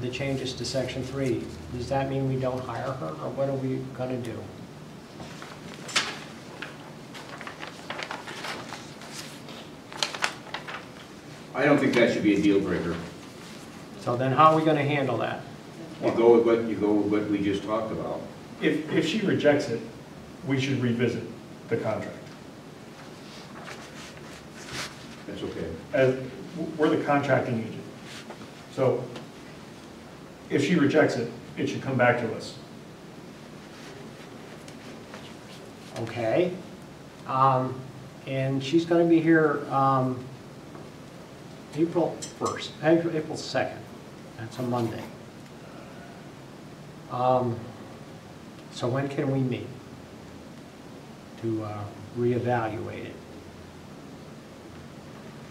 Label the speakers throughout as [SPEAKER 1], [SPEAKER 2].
[SPEAKER 1] the changes to section three, does that mean we don't hire her, or what are we gonna do?
[SPEAKER 2] I don't think that should be a deal breaker.
[SPEAKER 1] So then how are we gonna handle that?
[SPEAKER 2] You go with what, you go with what we just talked about.
[SPEAKER 3] If, if she rejects it, we should revisit the contract.
[SPEAKER 2] That's okay.
[SPEAKER 3] As, we're the contracting agent. So if she rejects it, it should come back to us.
[SPEAKER 1] Okay? Um, and she's gonna be here, um, April first, April, April second, that's a Monday. Um, so when can we meet? To, uh, reevaluate it?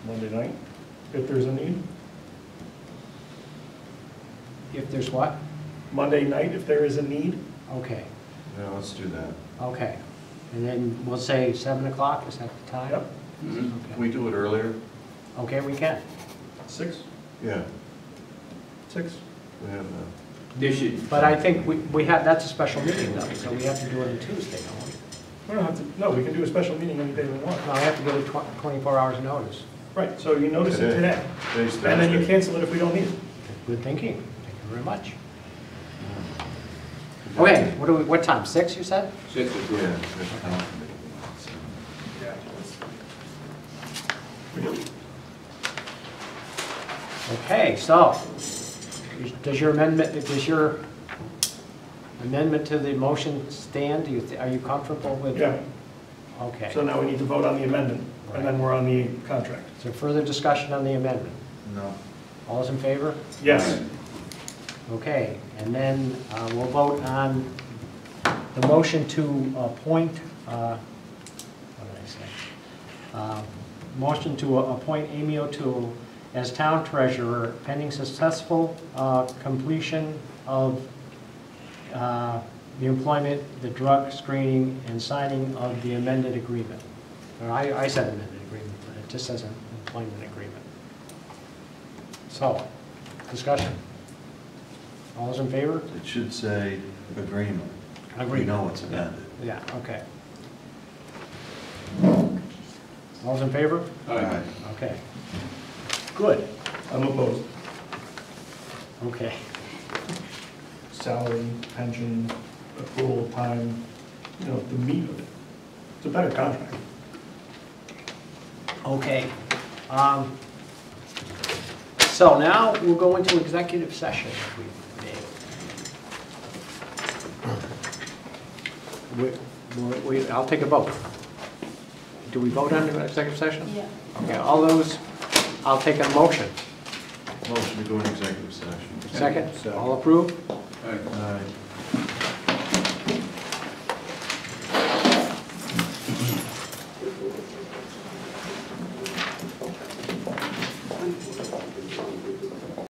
[SPEAKER 3] Monday night, if there's a need.
[SPEAKER 1] If there's what?
[SPEAKER 3] Monday night, if there is a need.
[SPEAKER 1] Okay,
[SPEAKER 4] Yeah, let's do that.
[SPEAKER 1] okay. And then we'll say seven o'clock, is that the time?
[SPEAKER 3] Yep,
[SPEAKER 4] Can we do it earlier?
[SPEAKER 1] Okay, we can.
[SPEAKER 3] six,
[SPEAKER 4] Yeah,
[SPEAKER 3] six.
[SPEAKER 4] we have uh, that.
[SPEAKER 2] They should,
[SPEAKER 1] But I think we, we have, that's a special meeting though, so we have to do it on Tuesday, don't we?
[SPEAKER 3] We don't have to, no, we can do a special meeting any day we want.
[SPEAKER 1] No, I have to give it tw- 24 hours notice.
[SPEAKER 3] Right, so you notice it today.
[SPEAKER 4] Today's
[SPEAKER 3] And then you
[SPEAKER 4] Thursday.
[SPEAKER 3] cancel it if we don't need it.
[SPEAKER 1] Good thinking. Thank you very much. Okay, what do we, what time, 6 you said?
[SPEAKER 2] six is
[SPEAKER 4] Yeah.
[SPEAKER 2] good.
[SPEAKER 4] that's fine.
[SPEAKER 1] Okay, so, does your amendment, does your amendment to the motion stand? Do you, thi- are you comfortable with?
[SPEAKER 3] Yeah,
[SPEAKER 1] Okay.
[SPEAKER 3] so now we need to vote on the amendment, and then we're on the contract.
[SPEAKER 1] Is there further discussion on the amendment?
[SPEAKER 4] No.
[SPEAKER 1] All is in favor?
[SPEAKER 3] Yes,
[SPEAKER 1] Okay, and then uh, we'll vote on the motion to appoint, uh, what did I say? Uh, Motion to appoint Amy O'Toole as town treasurer pending successful uh, completion of uh, the employment, the drug screening, and signing of the amended agreement. Or I I said amended agreement, but it just says employment agreement. So, discussion. All those in favor?
[SPEAKER 4] It should say agreement. We
[SPEAKER 1] Agreement.
[SPEAKER 4] know it's amended.
[SPEAKER 1] Yeah, okay. All those in favor?
[SPEAKER 2] All right.
[SPEAKER 1] Okay. Good,
[SPEAKER 3] I'm opposed.
[SPEAKER 1] okay.
[SPEAKER 3] Salary, pension, accrual, time, you know, the meat of it. It's a better contract.
[SPEAKER 1] Okay. Um, So now we'll go into executive session. if we may. We- we- I'll take a vote. Do we vote on the executive session?
[SPEAKER 5] Yeah.
[SPEAKER 1] Okay, all those, I'll take a motion.
[SPEAKER 4] Motion to go in executive session.
[SPEAKER 1] Second, all approve?
[SPEAKER 2] All right.
[SPEAKER 4] Aye.